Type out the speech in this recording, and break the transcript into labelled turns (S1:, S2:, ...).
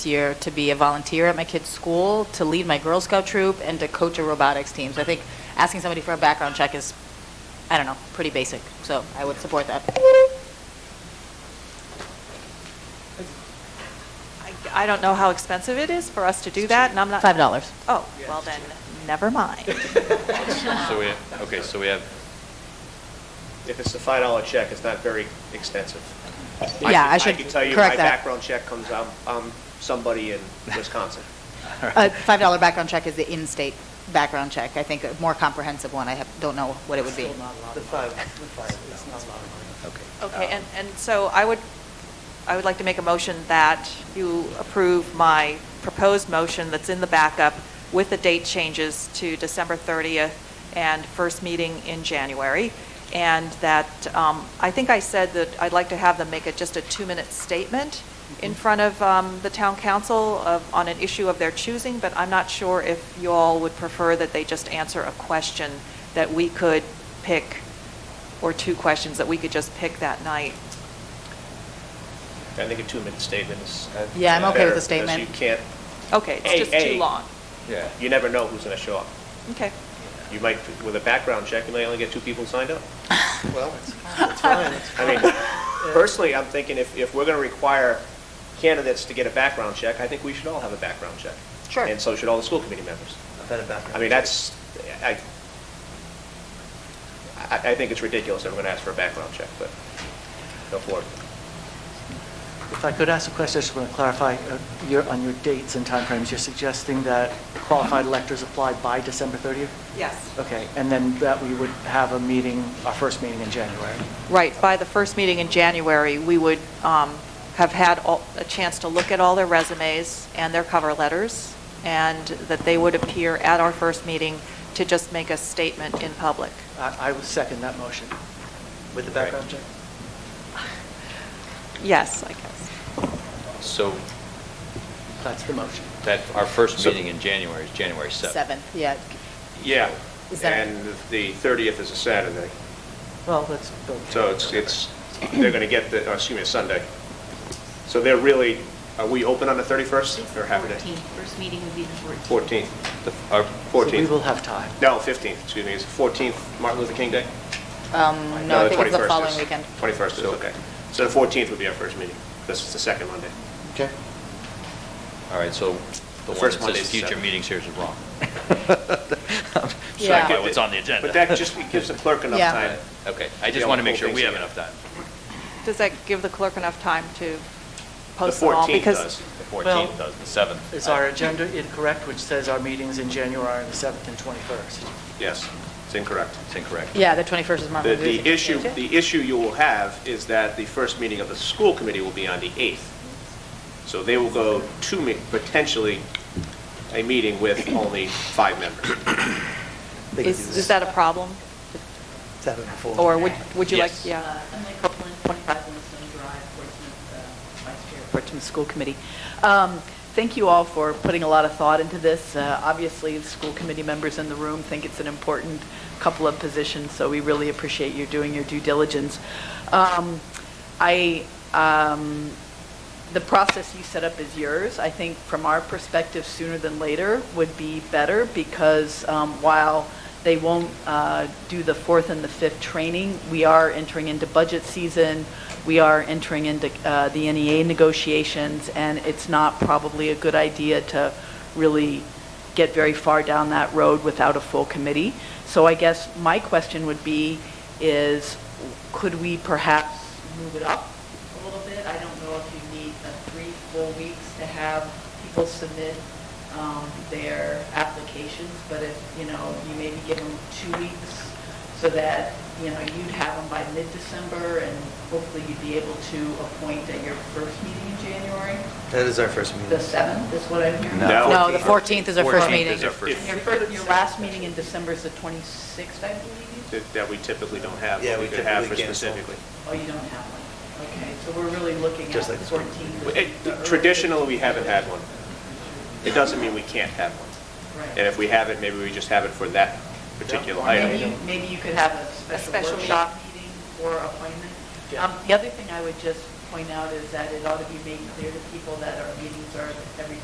S1: year to be a volunteer at my kid's school, to lead my Girl Scout troop, and to coach a robotics team. So I think asking somebody for a background check is, I don't know, pretty basic. So I would support that.
S2: I- I don't know how expensive it is for us to do that, and I'm not.
S1: Five dollars.
S2: Oh, well then, never mind.
S3: So we, okay, so we have,
S4: If it's a five dollar check, it's not very extensive.
S1: Yeah, I should
S4: I can tell you, my
S1: correct that.
S4: background check comes, I'm, I'm somebody in Wisconsin.
S1: A $5 background check is the in-state background check. I think a more comprehensive one, I have, don't know what it would be.
S3: okay.
S2: Okay, and, and so I would, I would like to make a motion that you approve my proposed motion that's in the backup with the date changes to December 30th and first meeting in January. And that, um, I think I said that I'd like to have them make it just a two-minute statement in front of um, the town council of, on an issue of their choosing, but I'm not sure if you all would prefer that they just answer a question that we could pick or two questions that we could just pick that night.
S4: I think a two-minute statement is. uh,
S1: Yeah, I'm okay with
S4: better,
S1: the statement.
S4: Because you can't,
S2: Okay, it's
S4: Hey,
S2: just too
S4: hey.
S2: long.
S3: Yeah.
S4: you never know who's gonna show up.
S2: Okay.
S4: You might, with a background check, you may only get two people signed up.
S5: Well, it's it's fine. It's-
S4: I mean, personally, I'm thinking if, if we're gonna require candidates to get a background check, I think we should all have a background check.
S1: Sure.
S4: And so should all the school committee members.
S5: I've had a background.
S4: I mean, that's, I, I, I think it's ridiculous that we're going to ask for a background check, but go for it.
S5: If I could ask a question, I just want to clarify, uh, your, on your dates and timeframes, you're suggesting that qualified electors apply by December 30th?
S2: Yes.
S5: Okay, and then that we would have a meeting, our first meeting in January?
S2: Right, by the first meeting in January, we would um, have had all- a chance to look at all their resumes and their cover letters, and that they would appear at our first meeting to just make a statement in public.
S5: I, I would second that motion. With the background check?
S2: Yes, I guess.
S3: So
S5: That's the motion.
S3: that, our first
S4: So-
S3: meeting in January is January 7th.
S1: Seventh, yeah.
S4: Yeah,
S1: Is that-
S4: and the 30th is a Saturday,
S5: Well, let's go.
S4: so it's, it's, they're going to get the, oh, excuse me, a Sunday. So they're really, are we open on the 31st or half a day?
S6: 14th, first meeting would be the 14th.
S4: 14th,
S3: The- Our,
S5: So we
S4: 14th.
S5: will have time.
S4: No, 15th, excuse me, it's 14th Martin Luther King Day?
S1: Um, No, I
S4: the
S1: think it's the
S4: 21st
S1: following
S4: is-
S1: weekend.
S4: 21st is,
S3: So-
S4: okay. So the 14th would be our first meeting, this is the second Monday.
S5: Okay.
S3: all right, so the
S4: The
S3: one
S4: first
S3: that
S4: Monday
S3: says
S4: is
S3: future
S4: seven.
S3: meetings here is wrong.
S1: Yeah.
S3: Sorry, what's Oh, on the agenda?
S4: But that just gives the clerk enough
S1: Yeah.
S4: time.
S3: Okay, I
S4: Yeah,
S3: just want to make
S4: pull
S3: sure we
S4: things
S3: have enough
S4: together.
S3: time.
S2: Does that give the clerk enough time to
S4: The
S2: post them all?
S4: 14th
S2: Because
S4: does.
S3: The
S5: Well,
S3: 14th does, the 7th.
S5: Is our agenda incorrect, which says our meetings in January are the 7th and 21st?
S4: Yes, it's incorrect.
S3: It's incorrect.
S1: Yeah, the 21st is Martin
S4: The,
S1: Luther King.
S4: the issue, the issue you will have is that the first meeting of the school committee will be on the 8th. So they will go to, me- potentially, a meeting with only five members.
S2: is is that a problem?
S5: Seven and four.
S2: Or would would you like,
S3: Yes.
S2: yeah?
S6: Uh, I'm like Copeland, 25 Winston Drive, Portsmouth, uh, Vice Chair.
S7: Portsmouth School Committee. Um, Thank you all for putting a lot of thought into this. Uh, Obviously, the school committee members in the room think it's an important couple of positions, so we really appreciate you doing your due diligence. Um, I, um, the process you set up is yours. I think from our perspective, sooner than later would be better because um, while they won't uh, do the fourth and the fifth training, we are entering into budget season, we are entering into uh, the NEA negotiations, and it's not probably a good idea to really get very far down that road without a full committee. So I guess my question would be is, could we perhaps move it up a little bit. I don't know if you need uh, three full weeks to have people submit um, their applications, but if, you know, you maybe give them two weeks so that, you know, you'd have them by mid-December and hopefully you'd be able to appoint at your first meeting in January.
S8: That is our first
S7: The
S8: meeting.
S7: 7th is what I'm hearing.
S4: No.
S1: No, the 14th is our first
S3: 14th
S1: meeting.
S3: is our first
S7: Your first, your last meeting in December is the 26th, I believe?
S4: That- That we typically don't have,
S8: Yeah,
S4: but we
S8: we
S4: could have for
S8: typically cancel.
S4: specifically.
S7: Oh, you don't have one? Okay, so we're really looking at
S8: Just
S7: the
S8: like the
S7: 14th.
S4: It- Traditionally, we haven't had one. It doesn't mean we can't have one.
S7: Right.
S4: And if we have it, maybe we just have it for that particular
S7: Or
S4: item.
S7: Maybe, maybe you could have a
S2: special
S7: special workshop meeting or appointment.
S5: Yeah.
S7: Um, The other thing I would just
S1: point out is that it ought to be made clear to people that our meetings are at